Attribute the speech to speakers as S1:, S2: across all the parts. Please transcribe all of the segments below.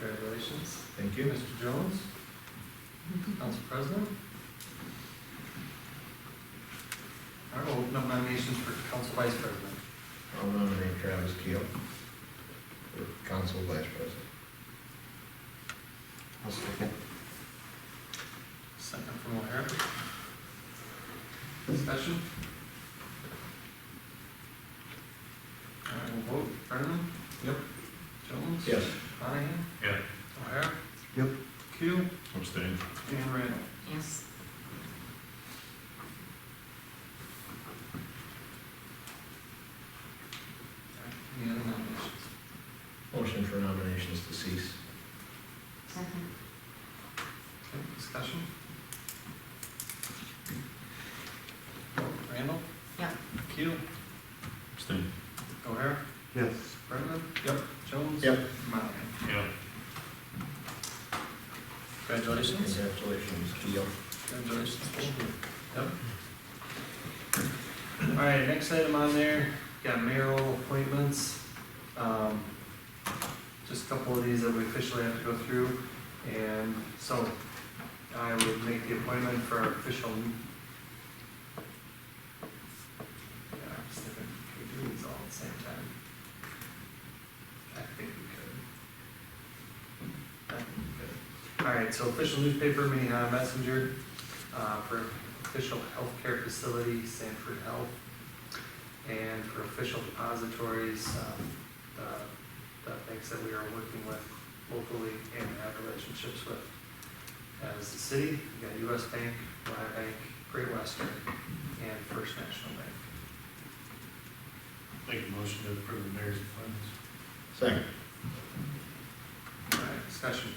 S1: questions?
S2: Thank you. Mr. Jones? Council President? All right, we'll open up nominations for Council Vice President.
S3: I'll nominate Travis Keel for council vice president.
S4: I'll second.
S2: Second from O'Hara. Discussion? All right, we'll vote. Brenneman? Yep. Jones?
S3: Yes.
S2: Monahan?
S1: Yeah.
S2: O'Hara?
S4: Yep.
S2: Keel?
S1: Abstain.
S2: And Randall?
S5: Yes.
S2: Any other nominations?
S3: Motion for nominations to cease.
S5: Second.
S2: Okay, discussion? Randall?
S5: Yeah.
S2: Keel?
S1: Abstain.
S2: O'Hara?
S4: Yes.
S2: Brenneman? Yep. Jones?
S3: Yep.
S2: Monahan?
S1: Yeah.
S2: Congratulations.
S3: Congratulations, Keel.
S2: Congratulations. Yep. All right, next item on there, got mayoral appointments. Um, Just a couple of these that we officially have to go through. And so I would make the appointment for our official. Yeah, I'm just thinking, can we do these all at the same time? I think we could. I think we could. All right, so official newspaper, Minnehaha Messenger uh, for official healthcare facility, Sanford Health, and for official depositories, um, the, the banks that we are working with locally and have relationships with. As the city, we got US Bank, Y Bank, Great Western, and First National Bank.
S1: Make a motion to approve the mayor's appointments.
S3: Second.
S2: All right, discussion.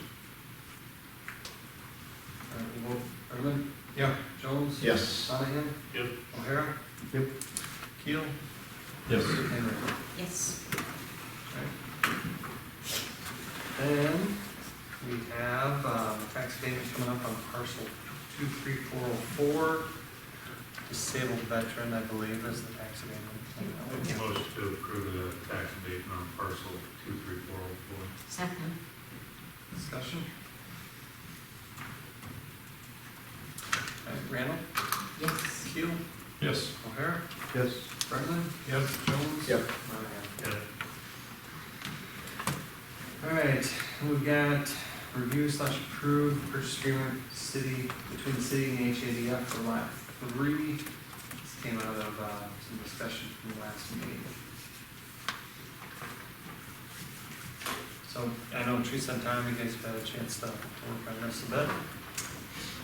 S2: Uh, All right, we'll vote. Brenneman? Yeah. Jones?
S3: Yes.
S2: Monahan?
S1: Yep.
S2: O'Hara?
S4: Yep.
S2: Keel?
S1: Yes.
S2: And Rick.
S5: Yes.
S2: Then we have, um, tax payments coming up on parcel two, three, four, oh, four. Disabled veteran, I believe, is the tax
S1: Make a
S2: payment.
S1: motion to approve the tax abatement on parcel two three four oh
S5: Second.
S2: Discussion? Alright, Randall,
S5: Yes.
S2: Keel,
S1: four. Yes.
S2: O'Hara,
S4: Yes.
S2: Brennan,
S1: Yep.
S2: Jones.
S3: Yep.
S2: Monahan.
S1: Yeah.
S2: All right, we've got review slash approve purchase agreement city, between the city and HADF for lot three. This came out of, uh, some discussion from the last meeting. So I know Teresa and Tom, you guys have had a chance to work on this a bit.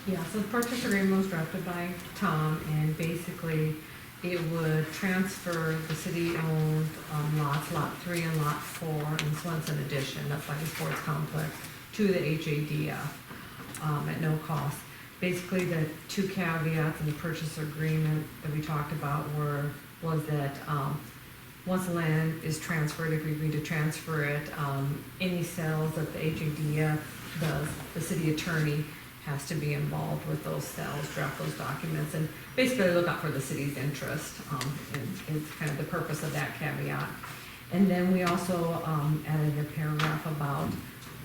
S6: Yeah, so the purchase agreement was drafted by Tom, and basically, it would transfer the city-owned um, lots, Lot 3 and Lot 4, in Swenson Addition, that's like a sports complex, to the HADF um, at no cost. Basically, the two caveats in the purchase agreement that we talked about were, was that um, once the land is transferred, if we agree to transfer it, um, any sales that the HADF does, the city attorney has to be involved with those sales, draft those documents, and basically look out for the city's interest, um, and it's kind of the purpose of that caveat. And then we also, um, added a paragraph about,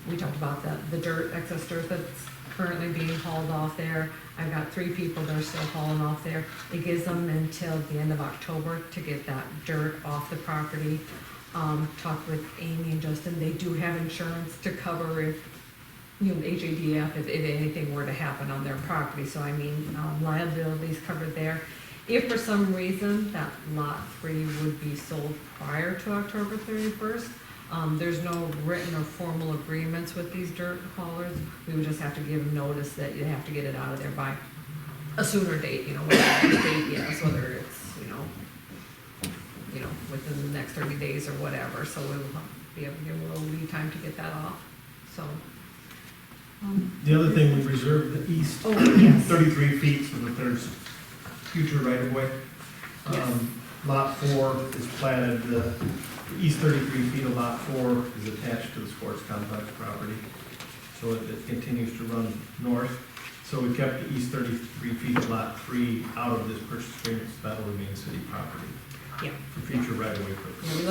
S6: we talked about the, the dirt, excess dirt that's currently being hauled off there. I've got three people that are still hauling off there. It gives them until the end of October to get that dirt off the property. Um, talked with Amy and Justin, they do have insurance to cover if you know, HADF if, if anything were to happen on their property, so I mean, um, liabilities covered there. If for some reason that lot three would be sold prior to October thirty-first, um, there's no written or formal agreements with these dirt haulers, we would just have to give them notice that you have to get it out of there by a sooner date, you know, whatever the date yes, whether it's, you know, you know, within the next thirty days or whatever, so we will be able to give a little lead time to get that off, so. um,
S7: The other thing, we reserved the east
S6: Oh, yes,
S7: thirty-three feet so that there's future right-of-way.
S6: Yes.
S7: Um, Lot four is platted, the the east thirty-three feet of lot four is attached to the sports complex property. So it it continues to run north. So we kept the east thirty-three feet of lot three out of this purchase agreement, so that'll remain city property
S6: yeah.
S7: for future right-of-way purposes.
S6: Yeah, we